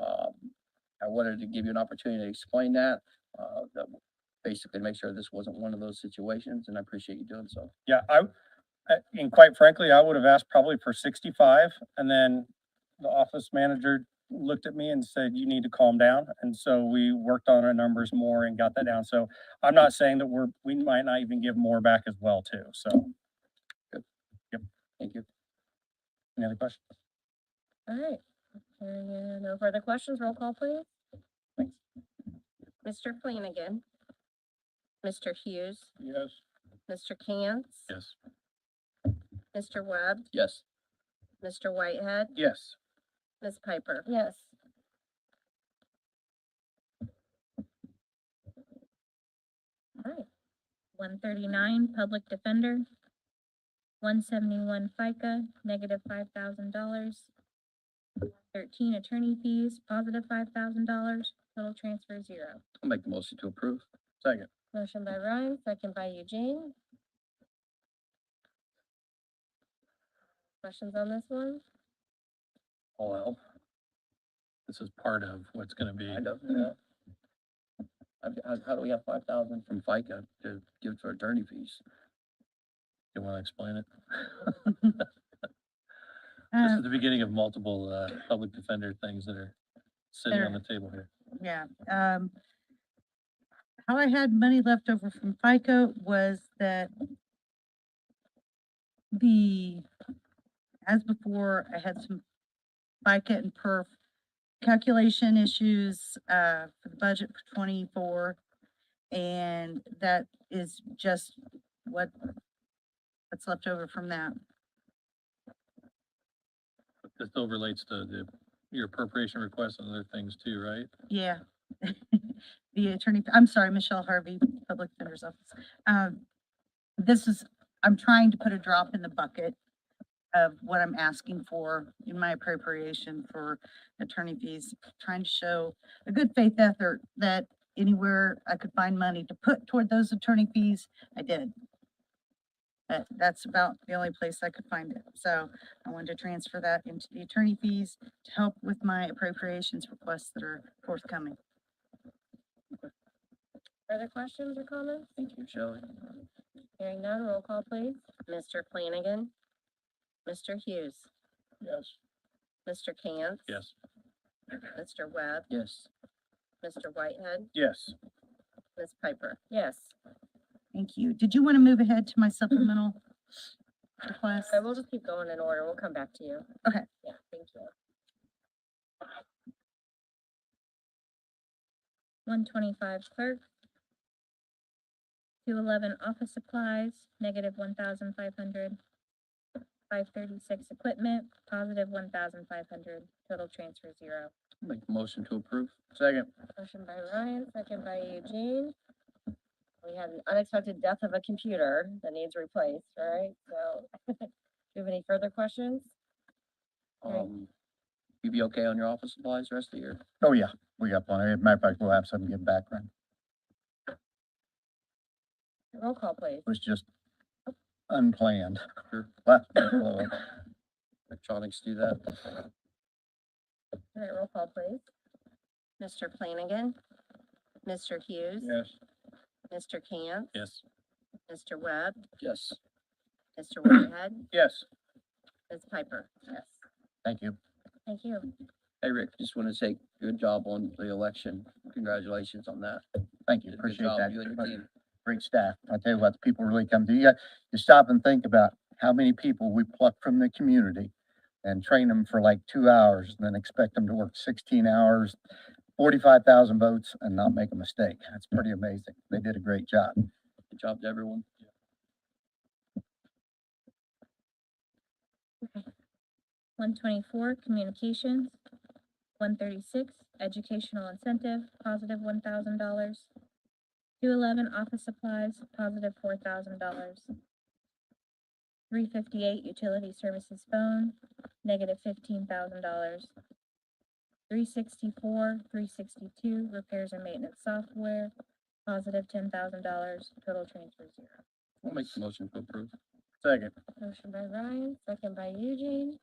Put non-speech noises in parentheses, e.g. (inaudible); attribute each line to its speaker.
Speaker 1: Um, I wanted to give you an opportunity to explain that, uh, that basically make sure this wasn't one of those situations, and I appreciate you doing so.
Speaker 2: Yeah, I, I- and quite frankly, I would have asked probably for sixty-five, and then the office manager looked at me and said, you need to calm down. And so we worked on our numbers more and got that down. So I'm not saying that we're, we might not even give more back as well too, so.
Speaker 1: Thank you.
Speaker 2: Any other questions?
Speaker 3: All right, hearing uh, no further questions, roll call please. Mr. Flanagan. Mr. Hughes,
Speaker 2: Yes.
Speaker 3: Mr. Cantz.
Speaker 2: Yes.
Speaker 3: Mr. Webb,
Speaker 1: Yes.
Speaker 3: Mr. Whitehead,
Speaker 2: Yes.
Speaker 3: Ms. Piper. Yes. All right, one thirty-nine, public defender. One seventy-one FICA, negative five thousand dollars. Thirteen attorney fees, positive five thousand dollars, total transfer zero.
Speaker 1: I'll make the motion to approve.
Speaker 2: Second.
Speaker 3: Motion by Ryan, second by Eugene. Questions on this one?
Speaker 1: All help.
Speaker 2: This is part of what's gonna be.
Speaker 1: I don't know. How, how- how do we have five thousand from FICA to give to our attorney fees?
Speaker 2: You wanna explain it?
Speaker 4: Uh,
Speaker 2: the beginning of multiple, uh, public defender things that are sitting
Speaker 4: on There.
Speaker 2: table here.
Speaker 4: yeah, um. How I had money left over from FICA was that the, as before, I had some FICA and perf calculation issues, uh, for the budget for twenty-four. And that is just what, what's left over from that.
Speaker 5: This still relates to the, your appropriation requests and other things too, right?
Speaker 4: Yeah. (laughs) The attorney, I'm sorry, Michelle Harvey, Public Defender's Office. Um, this is, I'm trying to put a drop in the bucket of what I'm asking for in my appropriation for attorney fees, trying to show a good faith effort that anywhere I could find money to put toward those attorney fees, I did. But that's about the only place I could find it. So I wanted to transfer that into the attorney fees to help with my appropriations requests that are forthcoming.
Speaker 3: Further questions or comments?
Speaker 1: Thank you, Shelley.
Speaker 3: Hearing none, roll call please. Mr. Flanagan. Mr. Hughes.
Speaker 2: Yes.
Speaker 3: Mr. Cantz.
Speaker 5: Yes.
Speaker 3: Mr. Webb.
Speaker 1: Yes.
Speaker 3: Mr. Whitehead.
Speaker 2: Yes.
Speaker 3: Ms. Piper. Yes.
Speaker 4: Thank you. Did you want to move ahead to my supplemental request?
Speaker 3: Okay, we'll just keep going in order. We'll come back to you.
Speaker 4: Okay.
Speaker 3: Yeah, thank you. One twenty-five clerk. Two eleven office supplies, negative one thousand five hundred. Five thirty-six equipment, positive one thousand five hundred, total transfer zero.
Speaker 1: I'll Make the motion to approve. Second.
Speaker 3: Motion by Ryan, second by Eugene. We had an unexpected death of a computer that needs replaced, right? So, (laughs) do you have any further questions? Right.
Speaker 1: Um, you be okay on your office supplies rest of the year?
Speaker 2: Oh, yeah, we got plenty. Matter of fact, we'll have some give back, right?
Speaker 3: Roll call, please.
Speaker 2: was just unplanned.
Speaker 1: Sure.
Speaker 2: Left me blow up.
Speaker 1: Electronics do that.
Speaker 3: All right, roll call, please. Mr. Flanagan. Mr. Hughes.
Speaker 2: Yes.
Speaker 3: Mr. Cant.
Speaker 5: Yes.
Speaker 3: Mr. Webb.
Speaker 1: Yes.
Speaker 3: Mr. Whitehead.
Speaker 2: Yes,
Speaker 3: Ms. Piper. Yes.
Speaker 2: thank you.
Speaker 3: Thank you.
Speaker 1: Hey, Rick, just want to say good job on the election. Congratulations on that.
Speaker 6: Thank
Speaker 1: You did a
Speaker 6: you,
Speaker 1: good
Speaker 6: appreciate
Speaker 1: job, you and your
Speaker 6: that.
Speaker 1: team.
Speaker 6: Great staff. I tell you what, the people really come to you. got- You stop and think about how many people we pluck from the community and train them for like two hours and then expect them to work sixteen hours, forty-five thousand votes and not make a mistake. That's pretty amazing. They did a great job.
Speaker 1: Good job to everyone.
Speaker 3: One twenty-four, communications. One thirty-six, educational incentive, positive one thousand dollars. Two eleven, office supplies, positive four thousand dollars. Three fifty-eight, utility services phone, negative fifteen thousand dollars. Three sixty-four, three sixty-two, repairs and maintenance software, positive ten thousand dollars, total transfer zero.
Speaker 1: I'll make the motion to approve.
Speaker 2: Second.
Speaker 3: Motion by Ryan, second by Eugene.